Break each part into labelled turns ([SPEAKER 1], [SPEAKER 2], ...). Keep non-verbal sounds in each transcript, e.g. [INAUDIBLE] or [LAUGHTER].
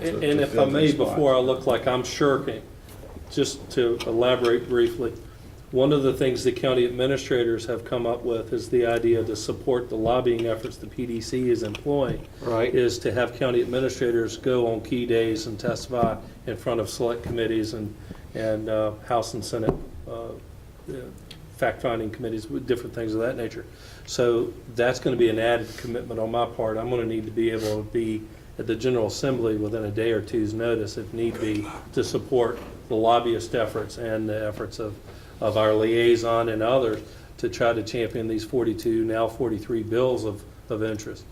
[SPEAKER 1] to-
[SPEAKER 2] And
[SPEAKER 1] to
[SPEAKER 2] and if
[SPEAKER 1] fill
[SPEAKER 2] I
[SPEAKER 1] that
[SPEAKER 2] may,
[SPEAKER 1] spot.
[SPEAKER 2] before I look like I'm shirking, just to elaborate briefly, one of the things the county administrators have come up with is the idea to support the lobbying efforts the PDC is employing.
[SPEAKER 1] Right.
[SPEAKER 2] Is to have county administrators go on key days and testify in front of select committees and, and uh, House and Senate uh, uh, fact-finding committees, with different things of that nature. So that's going to be an added commitment on my part. I'm going to need to be able to be at the General Assembly within a day or two's notice, if need be, to support the lobbyist efforts and the efforts of, of our liaison and others to try to champion these 42, now 43 bills of, of interest.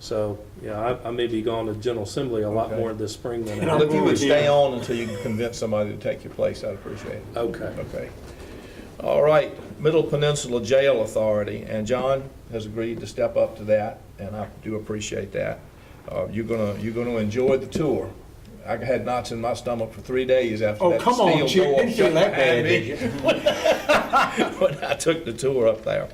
[SPEAKER 2] So, yeah, I, I may be going to General Assembly a lot
[SPEAKER 1] Okay.
[SPEAKER 2] more this spring than
[SPEAKER 3] [LAUGHS]
[SPEAKER 2] I
[SPEAKER 1] I'll
[SPEAKER 3] If you
[SPEAKER 1] agree
[SPEAKER 3] would
[SPEAKER 1] with you.
[SPEAKER 3] stay on until you can convince somebody to take your place, I'd appreciate it.
[SPEAKER 2] Okay.
[SPEAKER 3] Okay. All right, Middle Peninsula Jail Authority, and John has agreed to step up to that, and I do appreciate that. Uh, You're gonna, you're gonna enjoy the tour. I had knots in my stomach for three days after
[SPEAKER 1] Oh,
[SPEAKER 3] that
[SPEAKER 1] come on,
[SPEAKER 3] steel
[SPEAKER 1] Chick,
[SPEAKER 3] door
[SPEAKER 1] didn't feel
[SPEAKER 3] shut
[SPEAKER 1] that bad,
[SPEAKER 3] behind me [LAUGHS] when I took the tour up there.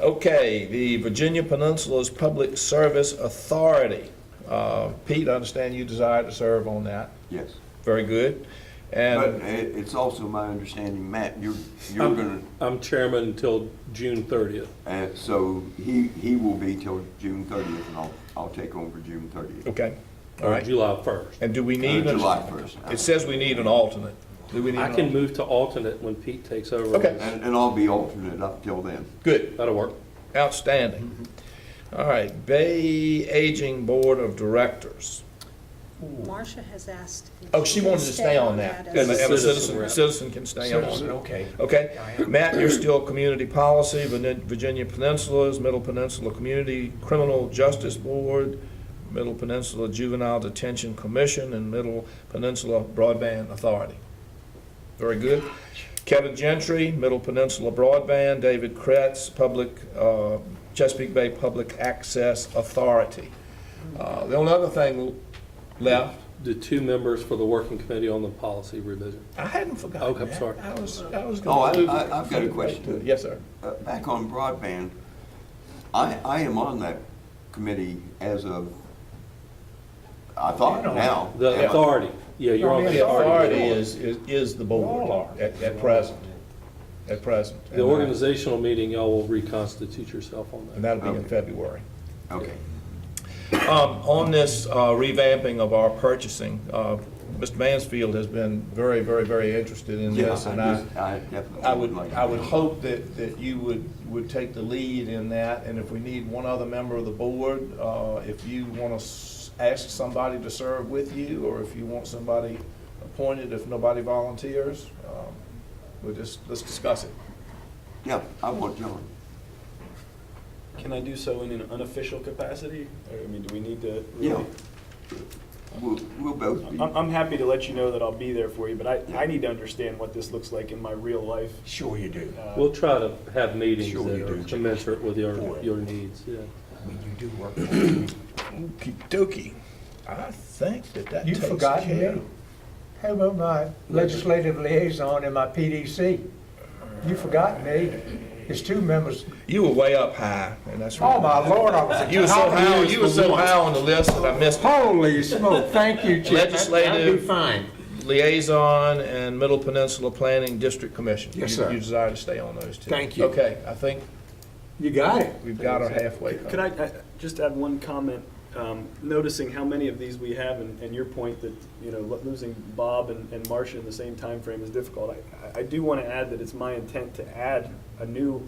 [SPEAKER 3] Okay, the Virginia Peninsula's Public Service Authority. Uh, Pete, I understand you desire to serve on that.
[SPEAKER 4] Yes,
[SPEAKER 3] Very good.
[SPEAKER 4] but
[SPEAKER 3] And, Um,
[SPEAKER 4] it, it's also my understanding, Matt, you're, you're gonna,
[SPEAKER 2] I'm chairman until June 30th.
[SPEAKER 4] uh, so he, he will be till June thirtieth, and I'll, I'll take over June thirtieth.
[SPEAKER 3] okay, all
[SPEAKER 2] or
[SPEAKER 3] right.
[SPEAKER 2] July 1st.
[SPEAKER 3] And do we need? an-
[SPEAKER 4] Uh, July first. Uh,
[SPEAKER 3] It says we need an alternate. Do we need
[SPEAKER 2] I
[SPEAKER 3] an
[SPEAKER 2] can
[SPEAKER 3] alternate?
[SPEAKER 2] move to alternate when Pete takes over.
[SPEAKER 3] Okay.
[SPEAKER 4] And, and I'll be alternate up till then.
[SPEAKER 3] Good,
[SPEAKER 2] That'll work.
[SPEAKER 3] outstanding.
[SPEAKER 2] Mm-hmm.
[SPEAKER 3] All right, Bay Aging Board of Directors.
[SPEAKER 5] Marcia has asked. if
[SPEAKER 3] Oh, she
[SPEAKER 5] can
[SPEAKER 3] wanted to stay on that.
[SPEAKER 5] as
[SPEAKER 3] And
[SPEAKER 2] a
[SPEAKER 3] a
[SPEAKER 2] citizen
[SPEAKER 3] citizen,
[SPEAKER 2] rep.
[SPEAKER 3] citizen can stay on it.
[SPEAKER 6] Citizen, okay.
[SPEAKER 3] Okay,
[SPEAKER 6] I am.
[SPEAKER 3] Matt, you're still Community Policy, Vin- Virginia Peninsula's Middle Peninsula Community Criminal Justice Board, Middle Peninsula Juvenile Detention Commission, and Middle Peninsula Broadband Authority. Very good. Kevin Gentry, Middle Peninsula Broadband, David Kretz, Public, uh, Chesapeake Bay Public Access Authority. Uh, The only other thing left,
[SPEAKER 2] The two members for the working committee on the policy revision.
[SPEAKER 3] I hadn't forgotten
[SPEAKER 2] Okay, I'm
[SPEAKER 3] that.
[SPEAKER 2] sorry.
[SPEAKER 3] I was, I was
[SPEAKER 4] Oh, I,
[SPEAKER 3] gonna.
[SPEAKER 4] I, I've got a question.
[SPEAKER 3] Yes, sir.
[SPEAKER 4] Uh, back on broadband, I, I am on that committee as of, I thought
[SPEAKER 6] You're on
[SPEAKER 4] now. Am I-
[SPEAKER 2] The authority, yeah, you're on the
[SPEAKER 3] Oh, The authority
[SPEAKER 2] authority.
[SPEAKER 3] is, is is the board.
[SPEAKER 6] All are.
[SPEAKER 3] At, at present, at present.
[SPEAKER 2] The organizational meeting, y'all will reconstitute yourself on
[SPEAKER 3] And
[SPEAKER 2] that.
[SPEAKER 3] that'll be in February.
[SPEAKER 4] Okay.
[SPEAKER 3] Um, on this uh, revamping of our purchasing, uh, Mr. Mansfield has been very, very, very interested in this.
[SPEAKER 4] Yes, I
[SPEAKER 3] And I,
[SPEAKER 4] just, I definitely.
[SPEAKER 3] I would,
[SPEAKER 4] like to
[SPEAKER 3] I would
[SPEAKER 4] be on.
[SPEAKER 3] hope that, that you would, would take the lead in that. And if we need one other member of the board, uh, if you want to ask somebody to serve with you, or if you want somebody appointed, if nobody volunteers, um, we'll just, let's discuss it.
[SPEAKER 4] Yeah, I want John.
[SPEAKER 6] Can I do so in an unofficial capacity? Or, I mean, do we need to?
[SPEAKER 4] Yeah.
[SPEAKER 6] really-
[SPEAKER 4] We'll, we'll both be.
[SPEAKER 3] Uh,
[SPEAKER 7] I'm, I'm happy to let you know that I'll be there for you, but I, I need to understand what this looks like in my real life.
[SPEAKER 6] Sure you do.
[SPEAKER 7] Uh,
[SPEAKER 2] We'll try to have meetings
[SPEAKER 6] Sure
[SPEAKER 2] that
[SPEAKER 6] you
[SPEAKER 2] are
[SPEAKER 6] do.
[SPEAKER 2] commensurate with your,
[SPEAKER 6] Boy.
[SPEAKER 2] your needs, yeah.
[SPEAKER 6] I mean, you do work. for me.
[SPEAKER 3] Okey dokey. I think that that
[SPEAKER 8] You
[SPEAKER 3] takes
[SPEAKER 8] forgot
[SPEAKER 3] care.
[SPEAKER 8] me. How about my legislative liaison and my PDC? You forgot me. There's two members.
[SPEAKER 3] You were way up high, and that's right.
[SPEAKER 8] Oh, my lord, I was. at
[SPEAKER 3] You were so
[SPEAKER 8] top of the
[SPEAKER 3] high,
[SPEAKER 8] list
[SPEAKER 3] you were
[SPEAKER 8] for
[SPEAKER 3] so
[SPEAKER 8] once.
[SPEAKER 3] high on the list that I missed
[SPEAKER 8] Holy smoke, thank you, Chip. I'll be
[SPEAKER 3] Legislative-
[SPEAKER 8] fine.
[SPEAKER 3] liaison and Middle Peninsula Planning District Commission.
[SPEAKER 8] Yes,
[SPEAKER 3] You-
[SPEAKER 8] sir.
[SPEAKER 3] You desire to stay on those two.
[SPEAKER 8] Thank you.
[SPEAKER 3] Okay, I think
[SPEAKER 8] You got it.
[SPEAKER 3] we've got her halfway.
[SPEAKER 7] Could I, I just add one comment? Um, noticing how many of these we have, and, and your point that you know lo- losing Bob and, and Marcia in the same time frame is difficult. I- I, I do want to add that it's my intent to add a new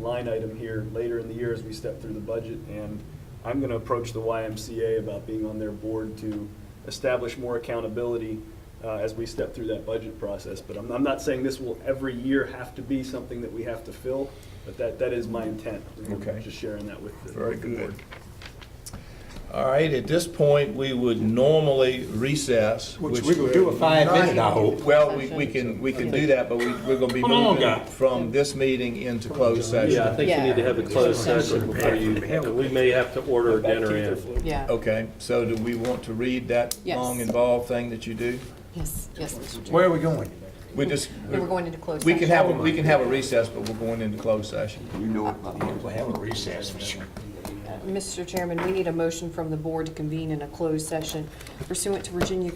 [SPEAKER 7] line item here later in the year as we step through the budget, and I'm going to approach the YMCA about being on their board to establish more accountability uh, as we step through that budget process. But I'm, I'm not saying this will every year have to be something that we have to fill, but that, that is my intent.
[SPEAKER 3] Okay.
[SPEAKER 7] Just sharing that with the
[SPEAKER 3] Very
[SPEAKER 7] with the board.
[SPEAKER 3] good. All right, at this point, we would normally recess.
[SPEAKER 8] Which we will do a five-minute, I hope.
[SPEAKER 3] Well, we, we can, we can do that, but we, we're gonna be
[SPEAKER 8] Come on,
[SPEAKER 3] moving
[SPEAKER 8] guy.
[SPEAKER 3] from this meeting into closed session.
[SPEAKER 2] Yeah, I think you need to have a closed session before you, we may have to order a dinner in.
[SPEAKER 9] Yeah,
[SPEAKER 3] Okay, so do we want to read that
[SPEAKER 9] Yes.
[SPEAKER 3] long involved thing that you do?
[SPEAKER 9] yes, yes, Mr. Chair.
[SPEAKER 8] Where are we going?
[SPEAKER 3] We just,
[SPEAKER 9] We were going into closed
[SPEAKER 3] we
[SPEAKER 9] session.
[SPEAKER 3] can have, a- we can have a recess, but we're going into closed session.
[SPEAKER 4] You know it by heart.
[SPEAKER 6] We'll have a recess for sure.
[SPEAKER 9] Mr. Chairman, we need a motion from the board to convene in a closed session pursuant to Virginia